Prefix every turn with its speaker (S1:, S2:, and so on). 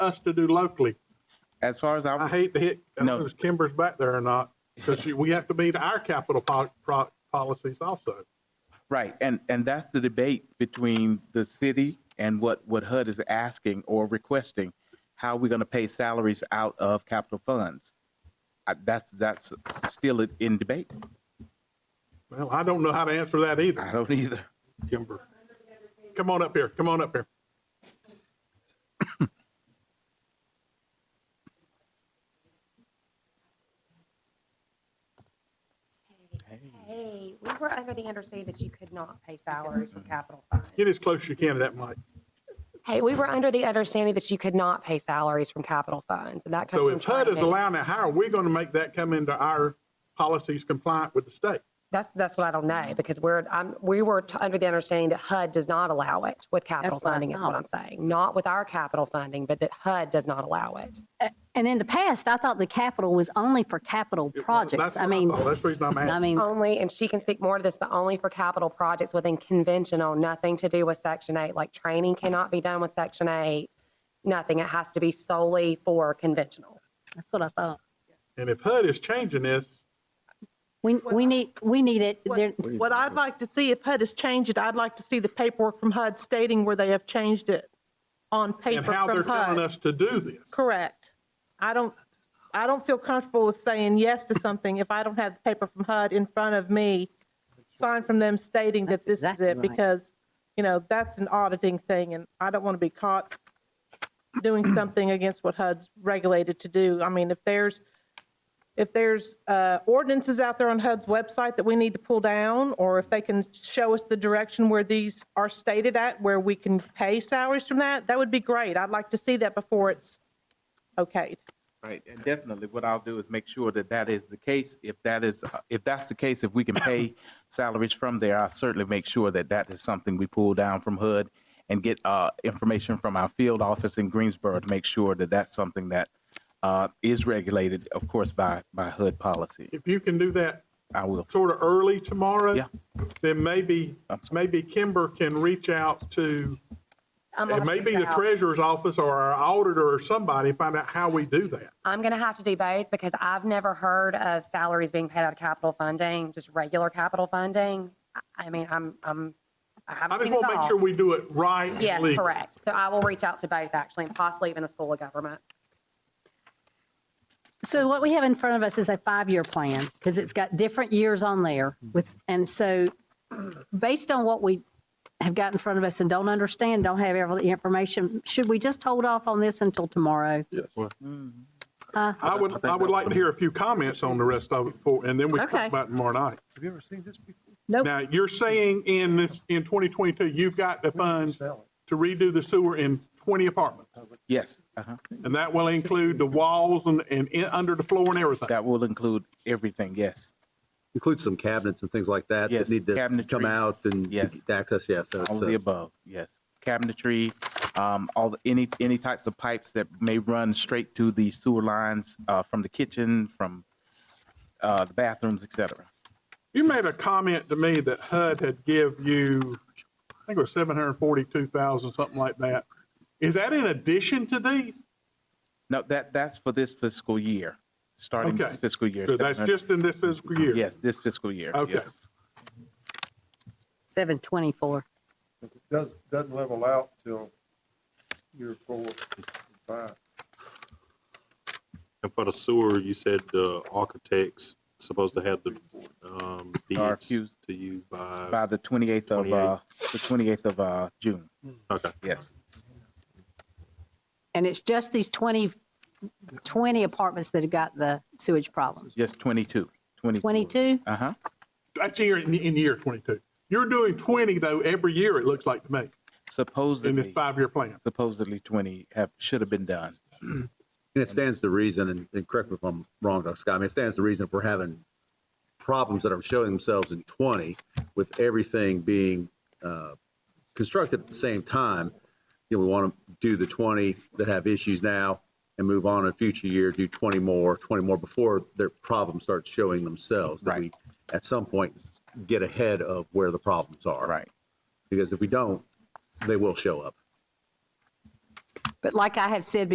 S1: us to do locally.
S2: As far as
S1: I
S2: I,
S1: hate to hit, I don't
S2: No.
S1: know if Kimber's back there or not, because we have to meet our capital po- pro- policies also.
S2: right, and, and that's the debate between the city and what, what HUD is asking or requesting, how we're gonna pay salaries out of capital funds. I- That's, that's still in debate.
S1: Well, I don't know how to answer that either,
S2: I don't either.
S1: Kimber. Come on up here, come on up here.
S3: Hey, we were under the understanding that you could not pay salaries from capital funds.
S1: Get as close as you can to that mic.
S3: Hey, we were under the understanding that you could not pay salaries from capital funds, and that comes
S1: So
S3: from
S1: if HUD is
S3: training.
S1: allowing it, how are we going to make that come into our policies compliant with the state?
S3: That's, that's what I don't know, because we're, I'm, we were t- under the understanding that HUD does not allow it with capital
S4: what I
S3: funding, is what I'm saying. Not with our capital funding, but that HUD does not allow it.
S4: And in the past, I thought the capital was only for capital
S1: That's
S4: projects.
S1: what
S4: I mean,
S1: thought. That's the reason I'm
S4: I
S1: asking.
S4: mean,
S3: Only, and she can speak more to this, but only for capital projects within conventional, nothing to do with Section 8. Like training cannot be done with Section 8, nothing. It has to be solely for conventional.
S4: that's what I thought.
S1: And if HUD is changing this,
S4: We, we need, we need it, there,
S5: What what I'd like to see, if HUD has changed it, I'd like to see the paperwork from HUD stating where they have changed it on paper
S1: and how they're
S5: from
S1: telling
S5: HUD.
S1: us to do this.
S5: Correct. I don't, I don't feel comfortable with saying yes to something if I don't have the paper from HUD in front of me, signed from them stating that this
S4: That's
S5: is
S4: exactly
S5: it,
S4: right.
S5: because, you know, that's an auditing thing, and I don't want to be caught doing something against what HUD's regulated to do. I mean, if there's, if there's uh, ordinances out there on HUD's website that we need to pull down, or if they can show us the direction where these are stated at, where we can pay salaries from that, that would be great. I'd like to see that before it's okayed.
S2: Right, and definitely, what I'll do is make sure that that is the case. If that is, uh, if that's the case, if we can pay salaries from there, I'll certainly make sure that that is something we pull down from HUD and get uh, information from our field office in Greensboro to make sure that that's something that uh, is regulated, of course, by, by HUD policy.
S1: If you can do that
S2: I will,
S1: sort of early tomorrow,
S2: Yeah.
S1: then maybe,
S2: I'm sorry.
S1: maybe Kimber can reach out to,
S3: I'm gonna
S1: it may be
S3: figure
S1: the
S3: out-
S1: treasurer's office or our auditor or somebody, find out how we do that.
S3: I'm going to have to do both because I've never heard of salaries being paid out of capital funding, just regular capital funding. I- I mean, I'm, I'm, I
S1: I
S3: haven't
S1: just
S3: seen it
S1: want to make sure
S3: all.
S1: we do it right and
S3: Yes,
S1: legal.
S3: correct. So I will reach out to both actually, and possibly even the School of Government.
S4: so what we have in front of us is a five-year plan, because it's got different years on there with, and so based on what we have got in front of us and don't understand, don't have all the information, should we just hold off on this until tomorrow?
S1: I would, I would like to hear a few comments on the rest of it before, and then we can
S4: Okay.
S1: talk about it tomorrow night.
S6: Have you ever seen this before?
S4: Nope.
S1: Now, you're saying in this, in 2022, you've got the funds to redo the sewer in 20 apartments.
S2: yes, uh-huh.
S1: And that will include the walls and, and in- under the floor and everything.
S2: that will include everything, yes.
S6: Includes some cabinets and things like that
S2: Yes,
S6: that need to come
S2: cabinetry.
S6: out and
S2: Yes.
S6: get access, yes. so it's,
S2: All of the
S6: uh,
S2: above, yes. Cabinetry, um, all, the- any, any types of pipes that may run straight to the sewer lines, uh, from the kitchen, from, uh, the bathrooms, et cetera.
S1: You made a comment to me that HUD had give you, I think it was 742,000, something like that. Is that in addition to these?
S2: No, that, that's for this fiscal year, starting
S1: Okay.
S2: this fiscal year.
S1: So that's
S2: 700
S1: just in this fiscal year?
S2: Yes, this fiscal year.
S1: Okay.
S2: yes.
S4: 724.
S7: But it doesn't, doesn't level out till year four, and five.
S8: And for the sewer, you said the architect's supposed to have the, um, bids
S2: RFQs.
S8: to you by,
S2: By the 28th of, uh, the 28th of, uh, June,
S1: Hmm.
S8: okay.
S2: yes.
S4: And it's just these 20, 20 apartments that have got the sewage problems.
S2: Yes, 22, 22.
S4: 22?
S2: Uh-huh.
S1: That's year, in, in year 22. You're doing 20 though every year, it looks like to me, in this
S2: Supposedly,
S1: five-year plan.
S2: supposedly 20 have, should have been done.
S6: And it stands to reason, and, and correct me if I'm wrong, Dr. Scott, I mean, it stands to reason if we're having problems that are showing themselves in twenty with everything being, uh, constructed at the same time. You know, we want to do the twenty that have issues now and move on in a future year, do twenty more, twenty more before their problems start showing themselves. That we,
S2: Right.
S6: At some point, get ahead of where the problems are.
S2: Right.
S6: Because if we don't, they will show up.
S4: But like I have said